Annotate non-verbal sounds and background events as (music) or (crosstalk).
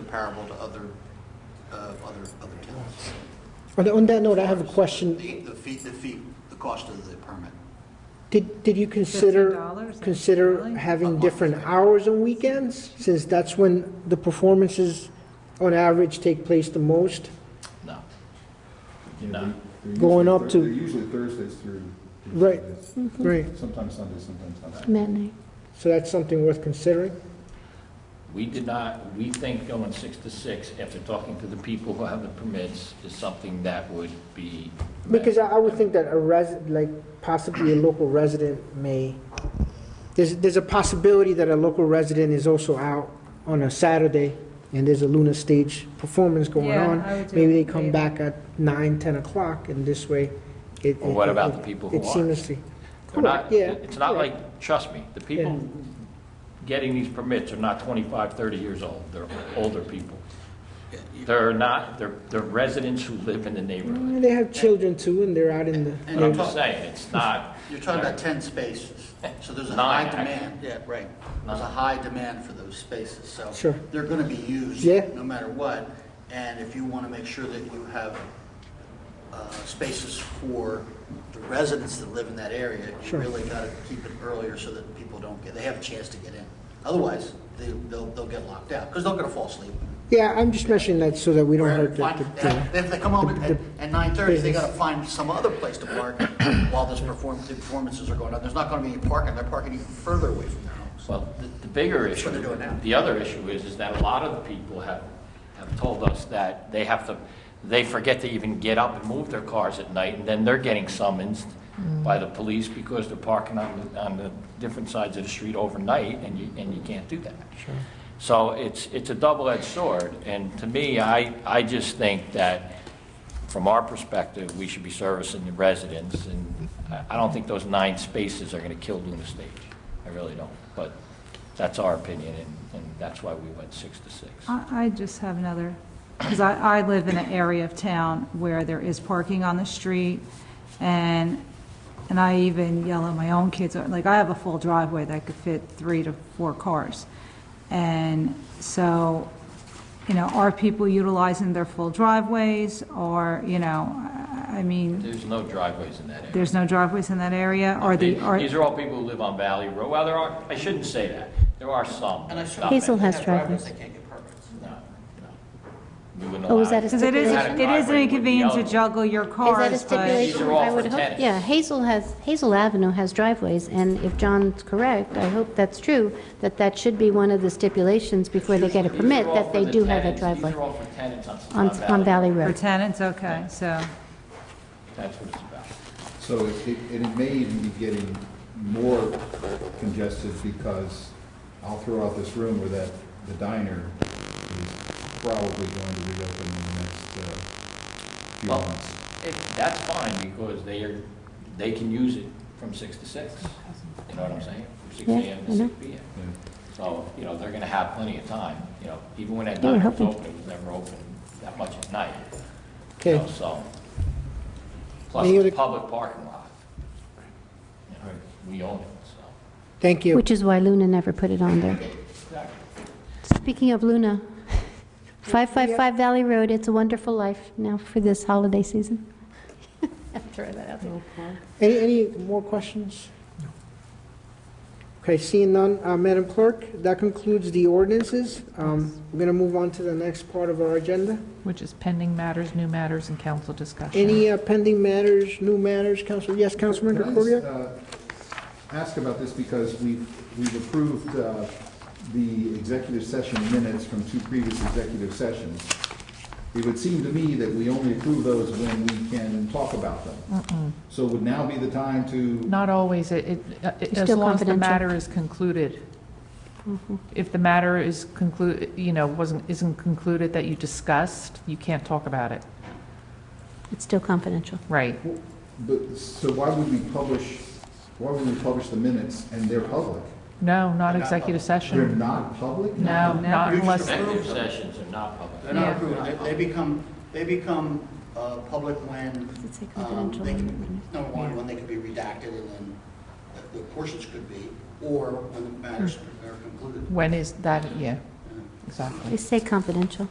comparable to other, uh, other, other towns. On on that note, I have a question. The the fee, the fee, the cost of the permit. Did, did you consider, $15? consider Really? having different hours on weekends? Since that's when the performances, on average, take place the most? No. Yeah, No. they're- they're Going usually up Thur- to- They're usually Thursdays through. through Right. Sundays. Right. Sometimes Sundays, sometimes Sundays. Mm-hmm. Matinee. So that's something worth considering? We did not, we think going six to six, after talking to the people who have the permits, is something that would be. met. Because I I would think that a resident, like possibly a local resident may, there's, there's a possibility that a local resident is also out on a Saturday and there's a Luna Stage performance going Yeah, on. I would do Maybe they it come later. back at nine, 10 o'clock and this way it. Well, what it- about it- the people who It aren't? seamlessly. They're not, Correct, yeah, it's not correct. like, trust me, the people getting these permits are not 25, 30 years old. They're older people. They're not, they're, they're residents who live in the neighborhood. They have children too and they're out in the. But I'm just saying, it's not. You're talking about 10 spaces, so there's a Nine, high actually. demand. Yeah, right. There's a Nine. high demand for those spaces, so. Sure. They're going to be used. Yeah. No matter what, and if you want to make sure that you have uh, spaces for the residents that live in that area, you Sure. really got to keep it earlier so that people don't get, they have a chance to get in. Otherwise, they- they'll, they'll get locked out, because they're going to fall asleep. Yeah, I'm just mentioning that so that we don't hurt the- Find- the. the- If they come home the- at, the- at nine thirty, they business. gotta find some other place to (coughs) park while this perform, the performances are going on. There's not gonna be any parking, they're parking even further away from their homes. Well, the- the bigger issue. what they're doing now. The other issue is, is that a lot of the people have, have told us that they have to, they forget to even get up and move their cars at night, and then they're getting summoned by the police because they're parking on, the on the different sides of the street overnight, and you, and you can't do that. So it's, it's a double-edged sword, and to me, I, I just think that, from our perspective, we should be servicing the residents, and I- I don't think those nine spaces are going to kill Luna Stage. I really don't, but that's our opinion, and, and that's why we went six to six. Uh, I, I just have another, because I, I live in an area of town where there is parking on the street, and, and I even yell at my own kids, uh, like, I have a full driveway that could fit three to four cars. And so, you know, are people utilizing their full driveways, or, you know, I I mean, There's no driveways in that area. there's no driveways in that area, or the, These- are, These are all people who live on Valley Road. Well, there are, I shouldn't say that. There are some. but it's not Hazel many. has drivers. No, no. We wouldn't Oh, was allow that a because it is, Had it a is an driveway, it would be inconvenience to eligible. juggle your Is that a cars, but. stipulation? These are all I for would hope- tennis. Yeah, Hazel has, Hazel Avenue has driveways, and if John's correct, I hope that's true, that that should be one of the stipulations before they get a These are permit, all that for they the do have a tenants. driveway These are all for tenants on, on, on Valley For Road. tenants, okay, so. That's what it's about. So it, it- and it may even be getting more congested because I'll throw out this rumor that the diner is probably going to reopen in the next, uh, few Well, months. If, that's fine, because they are, they can use it from six to six, you know what I'm saying? From six Yeah, AM to I know. six PM. So, you know, they're gonna have plenty of time, you know, even when that They were diner was hoping- open, it was never open that much at night. you Okay. know, So, plus Any it's a other- public parking lot. You know, Right. We own it, so. Thank you. Which is why Luna never put it on there. Speaking of Luna, 555 Valley Road, It's a Wonderful Life now for this holiday season. (laughs) Throw that out there. Any, any more questions? Okay, seeing none, uh, Madam Clerk, that concludes the ordinances. Um, We're going to move on to the next part of our agenda. which is pending matters, new matters, and council discussion. Any uh, pending matters, new matters, Council, yes, Councilman Can I just, Concordia? uh, Ask about this because we've, we've approved uh, the executive session minutes from two previous executive sessions. It would seem to me that we only approve those when we can talk about them. So would now be the time to, Not always, it, it- uh, it- as still long as confidential. the Mm-hmm. matter is concluded. If the matter is conclu, you know, wasn't, isn't concluded that you discussed, you can't talk about it. It's still confidential. Right. but, so why would we publish, why would we publish the minutes and they're public? No, not executive They're session. not public? No, not You just unless, Executive sessions are not public. They're not Yeah. approved, They- they become, they become uh, public when, Does it say um, confidential they on the can, minutes? number one, when they can be redacted and then the- the portions could be, or when the matters are concluded. Mm-hmm. when is that, yeah, exactly. They say confidential.